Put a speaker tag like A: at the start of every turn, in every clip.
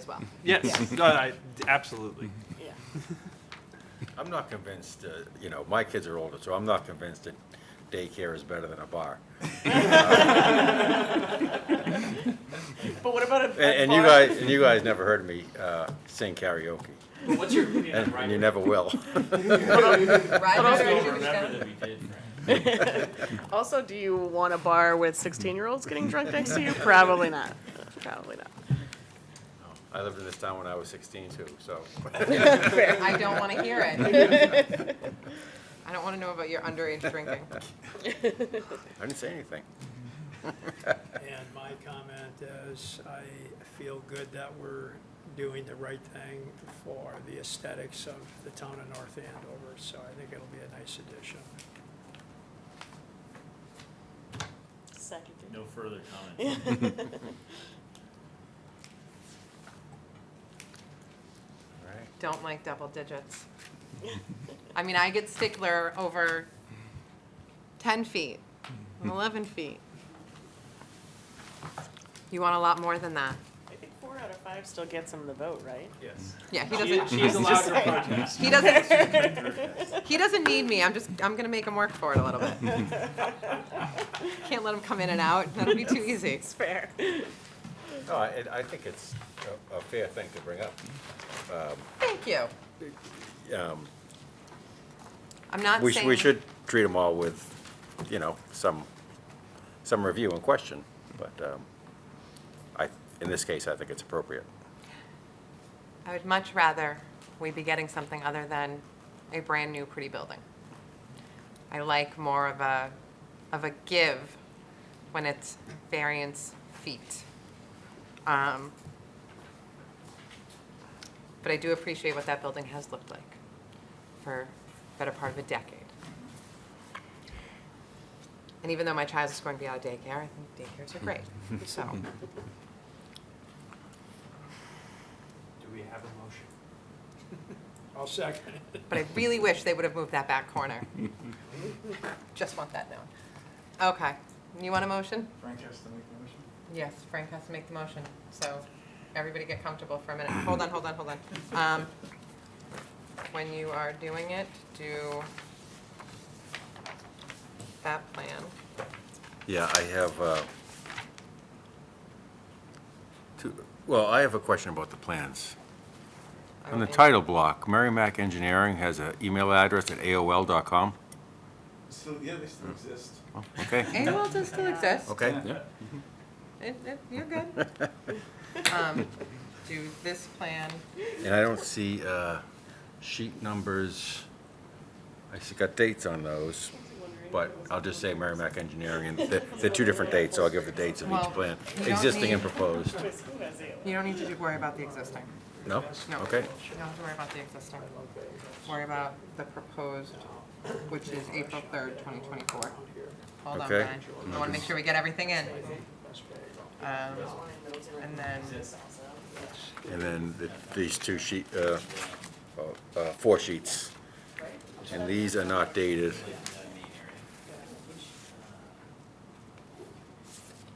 A: as well.
B: Yes, no, I- absolutely.
A: Yeah.
C: I'm not convinced, uh, you know, my kids are older, so I'm not convinced that daycare is better than a bar.
A: But what about a,
C: And, and you guys, and you guys never heard me uh, sing karaoke,
D: But what's your opinion on
C: and, and
D: Ryder?
C: you never will.
D: I
A: Ryder?
D: don't remember that we did.
A: Also, do you want a bar with 16 year olds getting drunk next to you? Probably not. Probably not.
C: I lived in this town when I was 16 too, so.
E: I don't want to hear it. I don't want to know about your underage drinking.
C: I didn't say anything.
F: And my comment is, I feel good that we're doing the right thing for the aesthetics of the town of North Andover, so I think it'll be a nice addition.
A: Second.
D: No further comment.
E: Don't like double digits. I mean, I get stickler over 10 feet, 11 feet. You want a lot more than that.
A: I think four out of five still gets him the vote, right?
D: Yes.
E: Yeah, he
D: She,
E: doesn't,
D: she's allowed to protest.
E: he doesn't, he doesn't need me. I'm just, I'm going to make him work for it a little bit. Can't let him come in and out. That'll be too easy.
A: It's fair.
C: No, I, and I think it's a, a fair thing to bring up.
E: Thank you.
C: Um,
E: I'm not
C: We,
E: saying.
C: sh- we should treat them all with, you know, some, some review and question, but um, I, in this case, I think it's appropriate.
E: I would much rather we be getting something other than a brand-new pretty building. I like more of a, of a give when it's variance feet. Um, But I do appreciate what that building has looked like for the better part of a decade. And even though my child is going to be out of daycare, I think daycares are great, so.
D: Do we have a motion?
F: I'll second it.
E: But I really wish they would have moved that back corner. Just want that known. Okay, you want a motion?
G: Frank has to make the motion.
E: Yes, Frank has to make the motion, so everybody get comfortable for a minute. Hold on, hold on, hold on. Um, When you are doing it, do that plan.
C: Yeah, I have, uh, two, well, I have a question about the plans.
E: I
C: On the
E: will-
C: title block, Merrimack Engineering has an email address at AOL.com.
G: Still, yeah, they still exist.
C: Oh, Okay,
E: AOL does still exist.
C: okay.
E: It, it, you're good. Um, Do this plan,
C: And I don't see uh, sheet numbers, I see got dates on those, but I'll just say Merrimack Engineering, and they're they're two different dates, so I'll give the dates of
E: Well,
C: each plan,
E: you don't
C: existing and
E: need-
C: proposed.
E: you don't need to do- worry about the existing.
C: No?
E: No. You
C: Okay.
E: don't have to worry about the existing. Worry about the proposed, which is April third, twenty twenty-four. Hold on,
C: Okay.
E: Brian. I wanna make sure we get everything in. Um, and then,
C: And then the- these two sheet, uh, uh, four sheets. And these are not dated.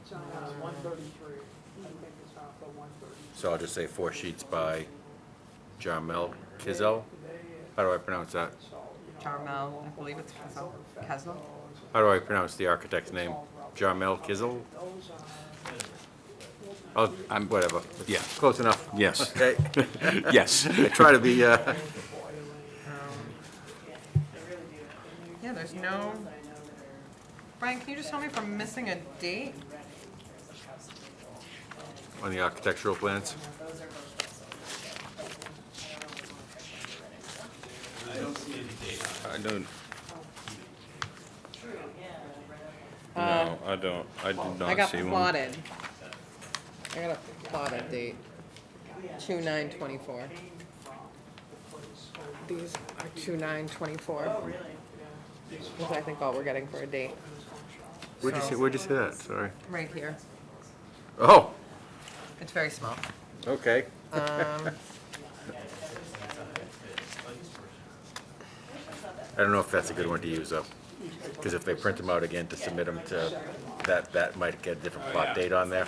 F: It's on one thirty-three, I think it's on the one thirty.
C: So I'll just say four sheets by Jarmel Kizel. How do I pronounce that?
E: Jarmel, I believe it's Kezel, Kezel?
C: How do I pronounce the architect's name? Jarmel Kizel? Oh, I'm, whatever.
H: Yeah.
C: Close enough.
H: Yes.
C: Okay.
H: Yes.
C: I try to be, uh,
E: Yeah, there's no. Brian, can you just tell me if I'm missing a date?
C: on the architectural plans.
I: I don't. No, I don't, I did not see one.
E: I got plotted. I got a plotted date, two nine twenty-four. These are two nine twenty-four. Oh, really? Which I think all we're getting for a date,
C: Where'd you see, where'd you see that? Sorry.
E: right here.
C: Oh,
E: It's very small.
C: okay. I don't know if that's a good one to use though, because if they print them out again to submit them to, that, that might get a different plot date on there.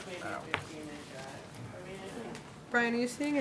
E: Brian, are you seeing